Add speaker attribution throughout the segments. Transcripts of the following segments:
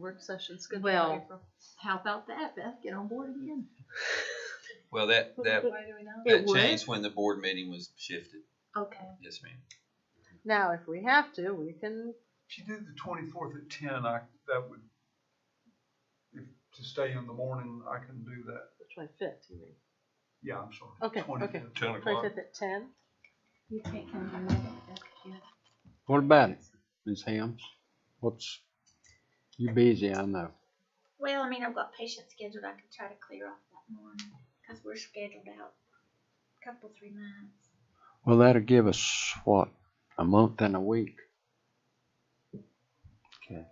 Speaker 1: Work session's good. for
Speaker 2: Well,
Speaker 1: April.
Speaker 2: How about that, Beth? Get on board again.
Speaker 3: Well, that, that,
Speaker 1: Why do we know?
Speaker 2: It
Speaker 3: that
Speaker 2: would?
Speaker 3: changed when the board meeting was shifted.
Speaker 2: Okay.
Speaker 3: Yes, ma'am.
Speaker 1: Now, if we have to, we can,
Speaker 4: If you did the twenty-fourth at ten, I, that would, if, to stay in the morning, I can do that.
Speaker 1: the twenty-fifth, you mean?
Speaker 4: Yeah, I'm sorry.
Speaker 1: Okay,
Speaker 4: 25th.
Speaker 1: okay.
Speaker 5: Ten o'clock.
Speaker 1: Twenty-fifth at ten?
Speaker 2: You can't come in that
Speaker 6: What about it, Ms. Helms? What's, you busy, I know.
Speaker 7: Well, I mean, I've got patients scheduled. I could try to clear off that morning because we're scheduled out a couple, three months.
Speaker 6: Well, that'll give us, what, a month and a week? Okay.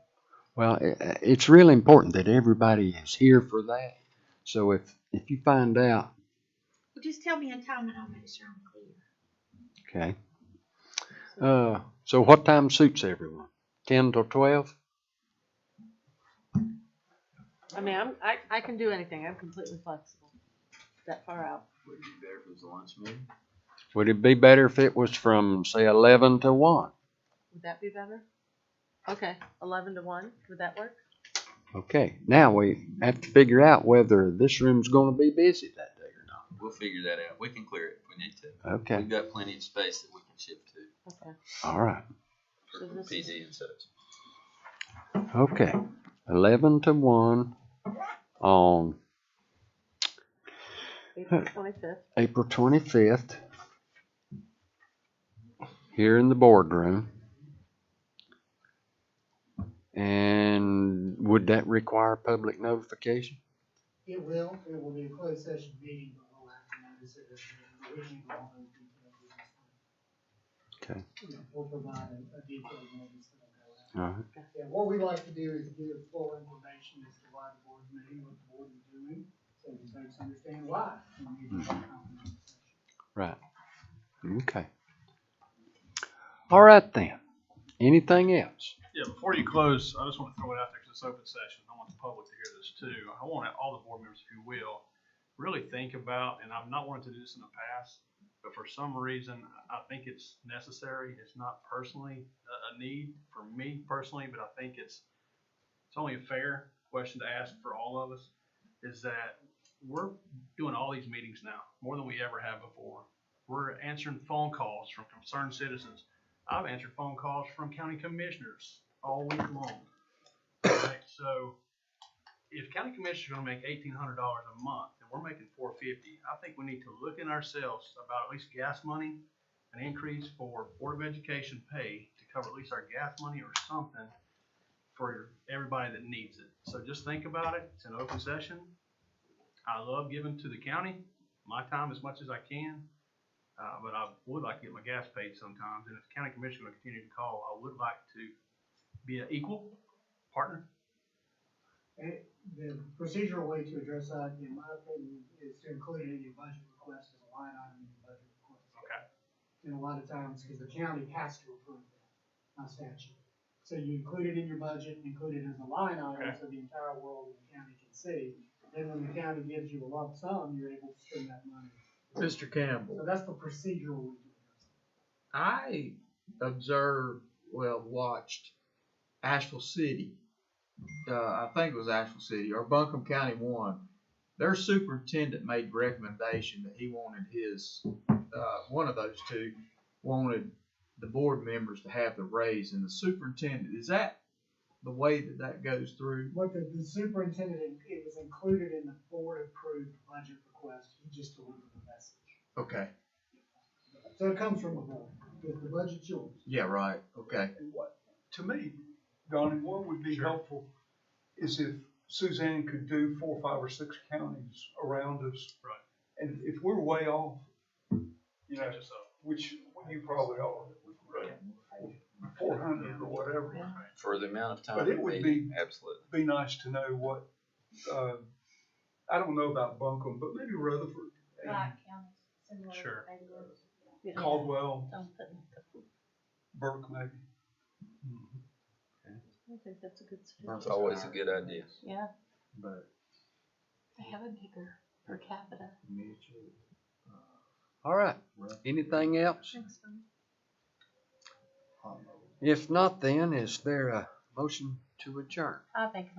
Speaker 6: Well, i- i- it's really important that everybody is here for that. So if, if you find out,
Speaker 7: Well, just tell me a time and I'll make sure I'm clear.
Speaker 6: okay. Uh, so what time suits everyone? Ten till twelve?
Speaker 1: I mean, I'm, I, I can do anything. I'm completely flexible. That far out.
Speaker 3: Would it be better if it was a lunch meeting?
Speaker 6: Would it be better if it was from, say, eleven to one?
Speaker 1: Would that be better? Okay, eleven to one, would that work?
Speaker 6: Okay, now we have to figure out whether this room's gonna be busy that day or not.
Speaker 3: We'll figure that out. We can clear it if we need to.
Speaker 6: Okay,
Speaker 3: We've got plenty of space that we can shift to
Speaker 1: Okay.
Speaker 6: all right.
Speaker 3: for
Speaker 1: So this is-
Speaker 3: PD and such.
Speaker 6: Okay, eleven to one on
Speaker 1: April twenty-fifth.
Speaker 6: April twenty-fifth here in the boardroom. And would that require public notification?
Speaker 8: It will, it will be a closed session meeting, but we'll have to notice it as an original.
Speaker 6: Okay,
Speaker 8: We'll provide a a detailed notice that'll go out.
Speaker 6: all right,
Speaker 8: Yeah, what we like to do is give full information as to why the board's meeting, what the board is doing, so the folks understand why. we need to have a confidential session.
Speaker 6: right, okay. All right then, anything else?
Speaker 5: Yeah, before you close, I just want to throw it out there because it's open session. I want the public to hear this too. I want all the board members who will really think about, and I've not wanted to do this in the past, but for some reason, I think it's necessary. It's not personally a- a need for me personally, but I think it's, it's only a fair question to ask for all of us, is that we're doing all these meetings now, more than we ever have before. We're answering phone calls from concerned citizens. I've answered phone calls from county commissioners all week long. Right, so if county commissioners are gonna make eighteen hundred dollars a month and we're making four fifty, I think we need to look in ourselves about at least gas money, an increase for Board of Education pay to cover at least our gas money or something for everybody that needs it. So just think about it. It's an open session. I love giving to the county, my time as much as I can. Uh, but I would like to get my gas paid sometimes, and if the county commissioner will continue to call, I would like to be an equal partner.
Speaker 8: Eh, The procedural way to address that, in my opinion, is to include it in your budget request as a line item in your budget request.
Speaker 5: Okay.
Speaker 8: And a lot of times, because the county has to approve that by statute. So you include it in your budget, include it as a line item,
Speaker 5: Okay.
Speaker 8: so the entire world of the county can see. Then when the county gives you a lump sum, you're able to spend that money.
Speaker 9: Mr.
Speaker 8: So
Speaker 9: Campbell,
Speaker 8: that's the procedural way to address it.
Speaker 9: I observed, well, watched Asheville City. Uh, I think it was Asheville City or Buncombe County one. Their superintendent made recommendation that he wanted his, uh, one of those two wanted the board members to have the raise and the superintendent. Is that the way that that goes through?
Speaker 8: What the, the superintendent, it was included in the board-approved budget request, he just delivered the message.
Speaker 9: Okay.
Speaker 8: So it comes from the board, because the budget's yours.
Speaker 9: Yeah, right. Okay.
Speaker 4: And what, to me, Donnie, what would be
Speaker 5: Sure.
Speaker 4: helpful is if Suzanne could do four, five, or six counties around us.
Speaker 5: Right.
Speaker 4: And if we're way off, you know,
Speaker 5: Just, uh,
Speaker 4: which you probably are, four hundred or whatever,
Speaker 3: For the amount of time.
Speaker 4: But it would be-
Speaker 3: Absolutely.
Speaker 4: be nice to know what, uh, I don't know about Buncombe, but maybe Rutherford and uh,
Speaker 5: Sure.
Speaker 4: Caldwell,
Speaker 1: Don't put me up.
Speaker 4: Burke maybe.
Speaker 1: I think that's a good
Speaker 3: It's
Speaker 1: suggestion.
Speaker 3: always a good idea.
Speaker 1: Yeah,
Speaker 9: But
Speaker 2: They have a bigger per capita.
Speaker 9: Mitchell,
Speaker 6: All right, anything else? If not, then is there a motion to adjourn?
Speaker 1: I think